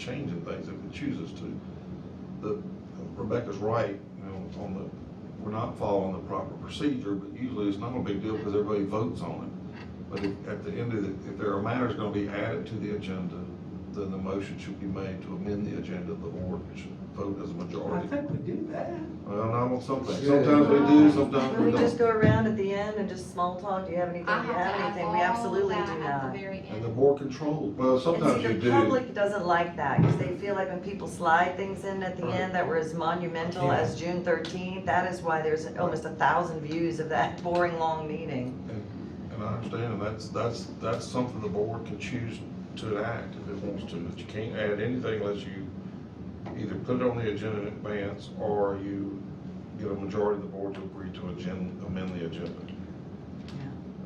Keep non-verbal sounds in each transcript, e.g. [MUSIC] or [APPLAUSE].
changing things if it chooses to. The, Rebecca's right, you know, on the, we're not following the proper procedure, but usually it's not a big deal because everybody votes on it. But if, at the end of the, if there are matters gonna be added to the agenda, then the motion should be made to amend the agenda, the board should vote as a I majority. think we do that. Well, not on some things, sometimes we do, sometimes Can we we just don't. go around at the end and just small talk, do you have anything, I do you have have to anything, have we Uh-huh. all absolutely that do at the not. very And the end. board controls, well, sometimes you And see, the do. public doesn't like that, because they feel like when people slide things in at the Right. end that were as monumental Yeah. as June thirteenth, that is why there's almost a thousand views of that [LAUGHS] boring, long meeting. And I understand, and that's, that's, that's something the board can choose to enact if it wants to, but you can't add anything unless you either put it on the agenda in advance, or you get a majority of the board to agree to agen- amend the agenda.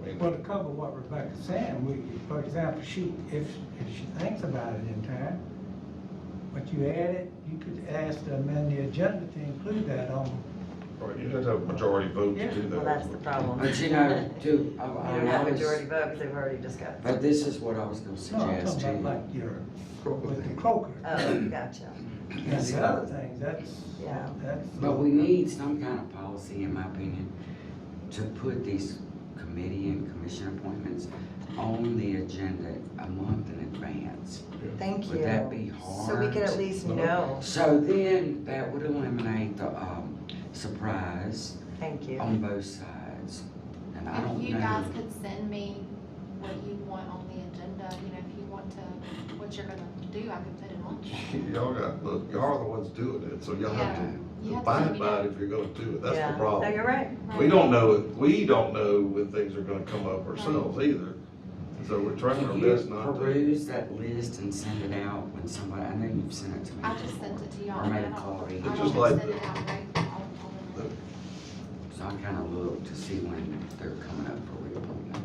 I mean, Well, to cover what Rebecca's saying, we, for example, she, if, if she thinks about it in time, but you add it, you could ask to amend the agenda to include that on. right, you'd have to have a majority vote to do that. Well, that's the problem. But [LAUGHS] you know, too, I, You don't I have always, majority vote, because they've already discussed. but this is what I was gonna No, I'm suggest talking to about you. like your, with the croaker. Oh, gotcha, And the other things, that's, Yeah. that's. But we need some kind of policy, in my opinion, to put these committee and commission appointments on the agenda a month in advance. thank you. Would that be So we can at hard? least know, So then, that would eliminate the, um, surprise thank you. on both sides. And I If don't you guys know, could send me what you want on the agenda, you know, if you want to, what you're gonna do, I could put it [LAUGHS] on. Y'all got, look, y'all are the ones doing it, so y'all have You to have to let abide me by know. it if you're gonna do it, that's Yeah. the problem. No, you're right. We don't know, if- we don't know when things are gonna come up ourselves either, and so we're trying our can best you not to. peruse that list and send it out when somebody, I know you've sent it to me. I just sent it to y'all. Or made a I don't- call. I It's don't just like send it the- out right on- on the- So I kinda look to see when they're coming up for reappointment.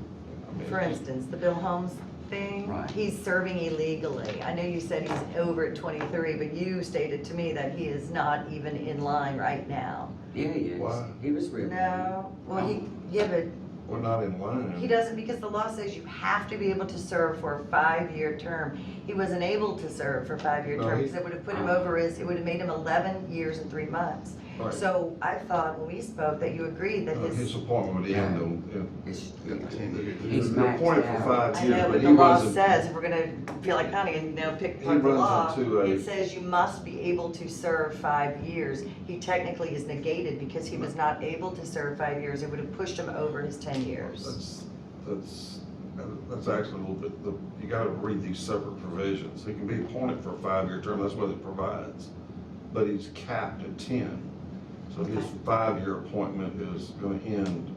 For instance, the Bill Holmes thing, Right. he's serving illegally. I know you said he's over at 23, but you stated to me that he is not even in line right now. Yeah, he is. Why? He was reappointed. No, well, he, yeah, but We're not in he line. doesn't, because the law says you have to be able to serve for a five-year term. He wasn't able to serve for a five-year No, term, he- because it would have put him over his, it would have made him 11 years and three months. Right. So I thought when we spoke that you agreed that Uh, His his, appointment would end on, It's- in, in, He's you're uh, appointed maxed for out. five I years, know, but but he the law runs, a- says, if we're gonna feel like Connie and now pick He part of the runs law, into a- it says you must be able to serve five years. He technically is negated because he was not able to serve five years, it would have pushed him over his ten years. that's, that's, that's actually a little bit, the- you gotta read these separate provisions. He can be appointed for a five-year term, that's what it provides, but he's capped at ten. So his five-year appointment is gonna end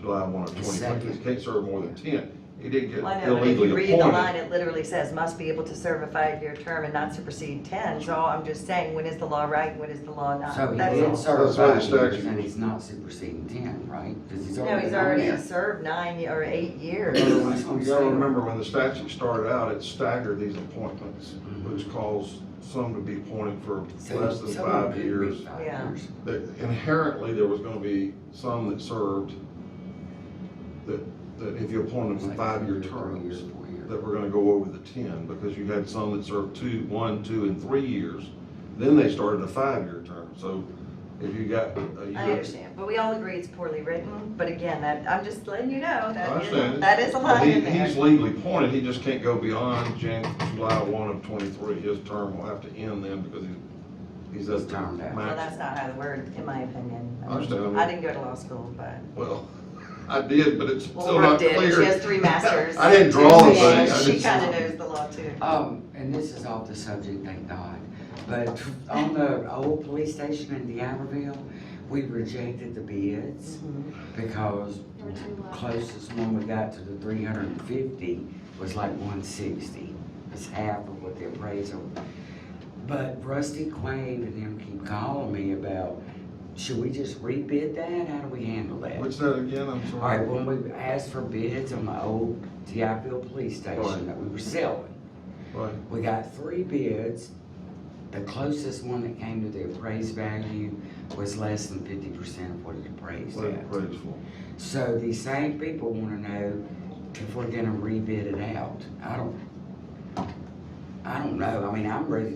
July one of twenty twenty, he Second. can't serve more than ten. He didn't get Well, I know, but if illegally you read the line, appointed. it literally says must be able to serve a five-year term and not supersede ten, so I'm just saying, when is the law right, and when is the law not? So he That's did all. serve That's what the five years statute- and he's not superseding ten, right? Cause he's No, already. he's on already there. served nine ye- or eight years. You gotta remember, when the statute started out, it staggered these appointments, which caused some to be appointed for So less than someone five did read years. five Yeah. years. That Inherently, there was gonna be some that served, that, that if you appointed them It's for like five-year three years, terms, Four years. that were gonna go over the ten, because you had some that served two, one, two, and three years. Then they started a five-year term, so if you got a I year. understand, but we all agree it's poorly written, but again, that, I'm just letting you know, I that is, understand. that is a But line he- in there. He's legally appointed, he just can't go beyond Jan, July one of twenty-three, his term will have to end then because he's, he's at He's the termed out. Well, that's max. not how the word, in my opinion. I understand. I didn't go to law school, but, Well, [LAUGHS] I did, but it's well, still Brooke not did, clear. she [LAUGHS] has three masters. I didn't draw the Yeah, thing. I She didn't- kinda knows the law too. Um, and this is off the subject, thank God, but on the old police station in Deaverville, we rejected the bids Mm-hmm. because They were too low. closest one we got to the three hundred and fifty was like one sixty. It's half of what the appraisal. But Rusty Quaid and them keep calling me about, should we just rebid that? How do we handle that? What's that again, I'm All right, sorry? when we asked for bids on the old DIPL police Right. station that we were selling, Right, we got three bids. The closest one that came to the appraised value was less than fifty percent of what it appraised what at. it prays for. So these same people wanna know if we're gonna rebid it out. I don't, I don't know, I mean, I'm ready